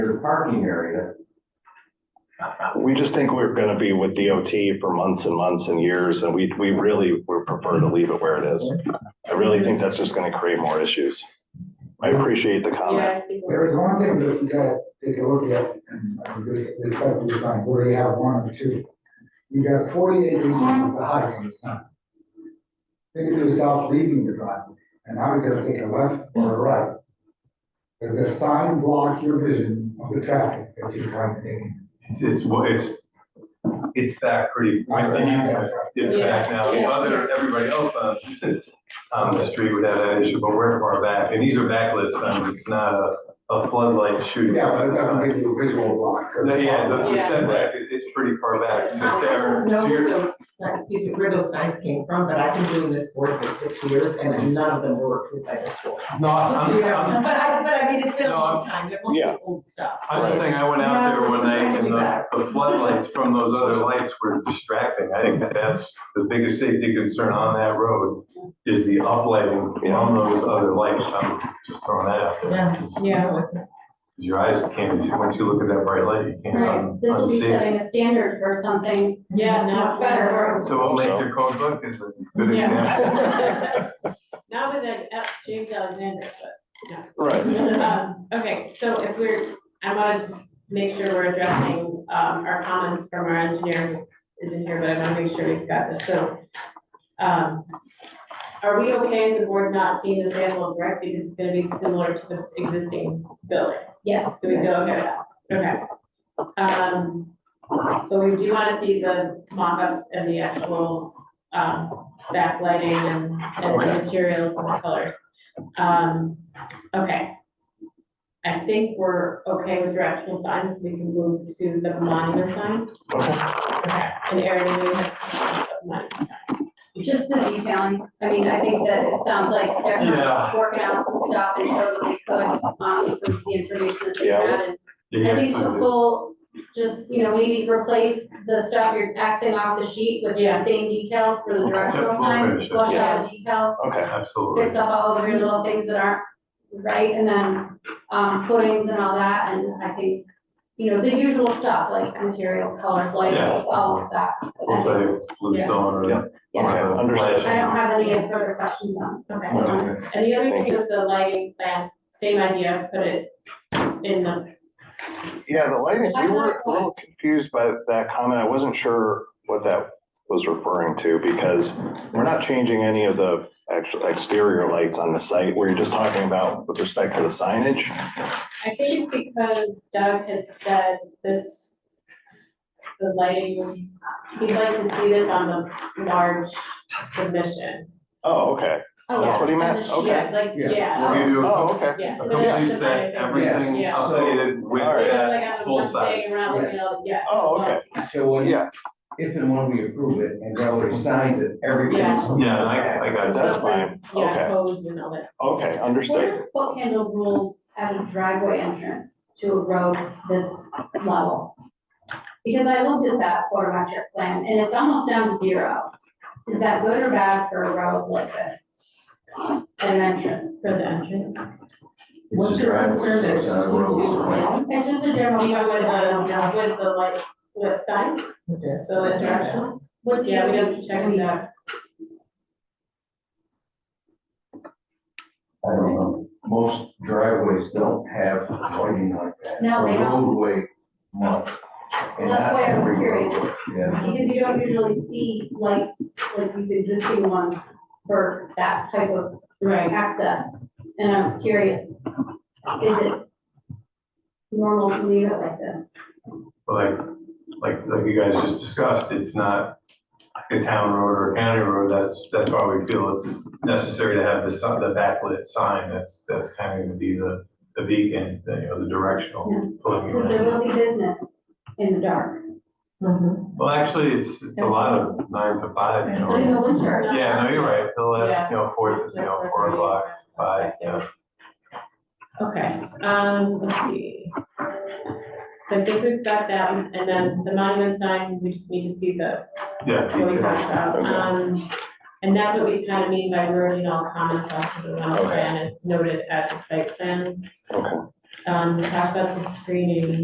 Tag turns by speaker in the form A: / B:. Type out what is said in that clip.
A: there's a parking area.
B: We just think we're gonna be with DOT for months and months and years, and we, we really would prefer to leave it where it is. I really think that's just gonna create more issues. I appreciate the comment.
C: Yes, we
D: There
C: will.
D: is one thing that you gotta take a look at, and I mean, this, this type of design, where you have one or two. You got forty-eight inches is the height of the sign. Think of yourself leaving the driveway, and now you're gonna take a left or a right. Does the sign block your vision of the traffic that you're trying to take? in?
E: It's, well, it's, it's back pretty, I think it's- it's back now. Other, everybody else on, on the street would have that issue, but we're far back. And these are backlit signs, it's not a a floodlight shooting.
D: Yeah, but it doesn't give you a visual block. 'cause
E: No,
D: it's-
E: Yeah, the- the
F: Yeah.
E: setback, it- it's pretty far back.
F: I don't
E: To-
F: know
E: to
F: where
E: your-
F: those, signs- excuse me, where those signs came from, but I've been doing this board for six years and none of them were approved by this board.
E: No, I'm,
F: So, you know,
E: I'm-
F: But I, but I mean, it's been a
E: No,
F: long time, they're mostly
B: yeah.
F: old stuff.
E: I'm just saying, I went out there one night and the the floodlights from those other lights were distracting. I think that that's the biggest safety concern on that road is the uplighting from those other lights. I'm just throwing that out
F: Yeah.
E: there.
C: Yeah.
F: What's-
E: Your eyes can't, once you look at that bright light, you can't
G: Right,
E: un-
G: this will be
E: unsee it.
G: setting a standard or something.
C: Yeah, no,
G: Much better.
E: So what
B: Hope
E: make
B: so.
E: your code book is a good example.
C: Yeah. Not with that, uh, James Alexander,
B: Right.
C: but, um, okay, so if we're, I wanna just make sure we're addressing, um, our comments from our engineer who isn't here, but I wanna make sure we've got this, so. Um, are we okay as the board not seeing the sample of brick because it's gonna be similar to the existing building?
G: Yes.
C: So we go, okay, okay. Um, but we do wanna see the mock-ups and the actual, um, backlighting and, and the materials and the colors. Um, okay. I think we're okay with your actual signs, we can move to the monument sign. Okay, and Erin, you have to talk about the monument sign.
G: Just the detailing, I mean, I think that it sounds like they're
E: Yeah.
G: not working out some stuff and showed what they could, um, from the information that they
B: Yeah.
G: had. And I think the full, just, you know, maybe replace the stuff you're Xing off the sheet with
C: Yeah.
G: the same details for the
E: Okay,
G: directional
E: full
G: signs,
E: finish,
G: flush
C: yeah.
G: out the details.
B: Okay,
E: Absolutely.
G: fix up all of your little things that aren't right, and then, um, footings and all that, and I think, you know, the usual stuff, like materials, colors, lighting,
E: Yeah.
G: all of that.
E: Looks like it's blue
C: Yeah.
E: stone
B: Yeah.
E: or.
B: Okay,
G: Yeah,
B: understood.
G: I don't have any further questions on.
C: Okay.
E: Okay.
C: And the other
B: Thank
C: thing is the lighting plan, same idea, put it in the,
B: Yeah, the lighting, we were a little confused by that comment. I wasn't sure what that was referring to because we're not changing any of the actual exterior lights on the site. We're just talking about with respect to the signage.
C: I think it's because Doug had said this, the lighting, he'd like to see this on the large submission.
B: Oh, okay.
G: Oh,
B: That's what he
G: yeah,
B: meant,
G: there's a sheet.
B: Okay.
C: Yeah, like,
D: Yeah.
E: Will
C: yeah,
E: you do
B: Oh,
E: a
B: okay.
C: yeah.
E: a
C: so that's
E: complete
C: the
E: set,
C: kind of
E: everything
C: Yeah.
E: updated with
B: All right.
C: thing. It's
E: that
C: like I have
E: full
C: one
E: size?
C: thing around, like, you know, yeah.
B: Oh, okay.
A: So when,
B: Yeah.
A: if and when we approve it, and there are signs that everybody's.
E: Yeah, I, I got
B: That's
E: that.
B: fine.
C: Yeah,
B: Okay.
C: codes and all that.
B: Okay,
G: What
B: understood.
G: are foot handle rules at a driveway entrance to a road this level? Because I looked at that photometric plan, and it's almost down to zero. Is that good or bad for a road like this? At an entrance?
C: For the entrance.
F: What's your concern that it's two, two, ten?
G: It's just a general
C: Even with
G: question, I don't
C: the,
G: know.
C: with the like, lit signs,
F: Yes.
C: so the directional,
G: What do
C: yeah, we
G: you-
C: have to check it out.
A: I don't know, most driveways don't have lighting like that.
G: No, they
A: Or
G: don't.
A: Roadway much. And
G: That's
A: not
G: why I was
A: every
G: curious.
A: roadway, Yeah.
G: Because you don't usually see lights like these existing ones for that type of
C: Right,
G: access. And I was curious, is it normal to leave it like this?
E: Like, like, like you guys just discussed, it's not a town road or a county road, that's, that's why we feel it's necessary to have the sun, the backlit sign, that's, that's kind of gonna be the, the beacon, the, you know, the directional pulling you
G: Because there
E: in.
G: will be business in the dark,
F: Mhm.
E: Well, actually, it's, it's a lot of nine to five, you
G: but in
E: know.
G: the winter,
E: Yeah, no, you're right, the
C: Yeah.
E: last, you know, four, you know, four o'clock, five, you know.
C: Okay, um, let's see. So I think we've got that, and then the monument sign, we just need to see the,
E: Yeah.
C: what we talked about.
B: Okay.
C: Um, and that's what we kind of mean by wording all comments off of the development plan and noted as a site plan.
B: Okay.
C: Um, we talked about the screening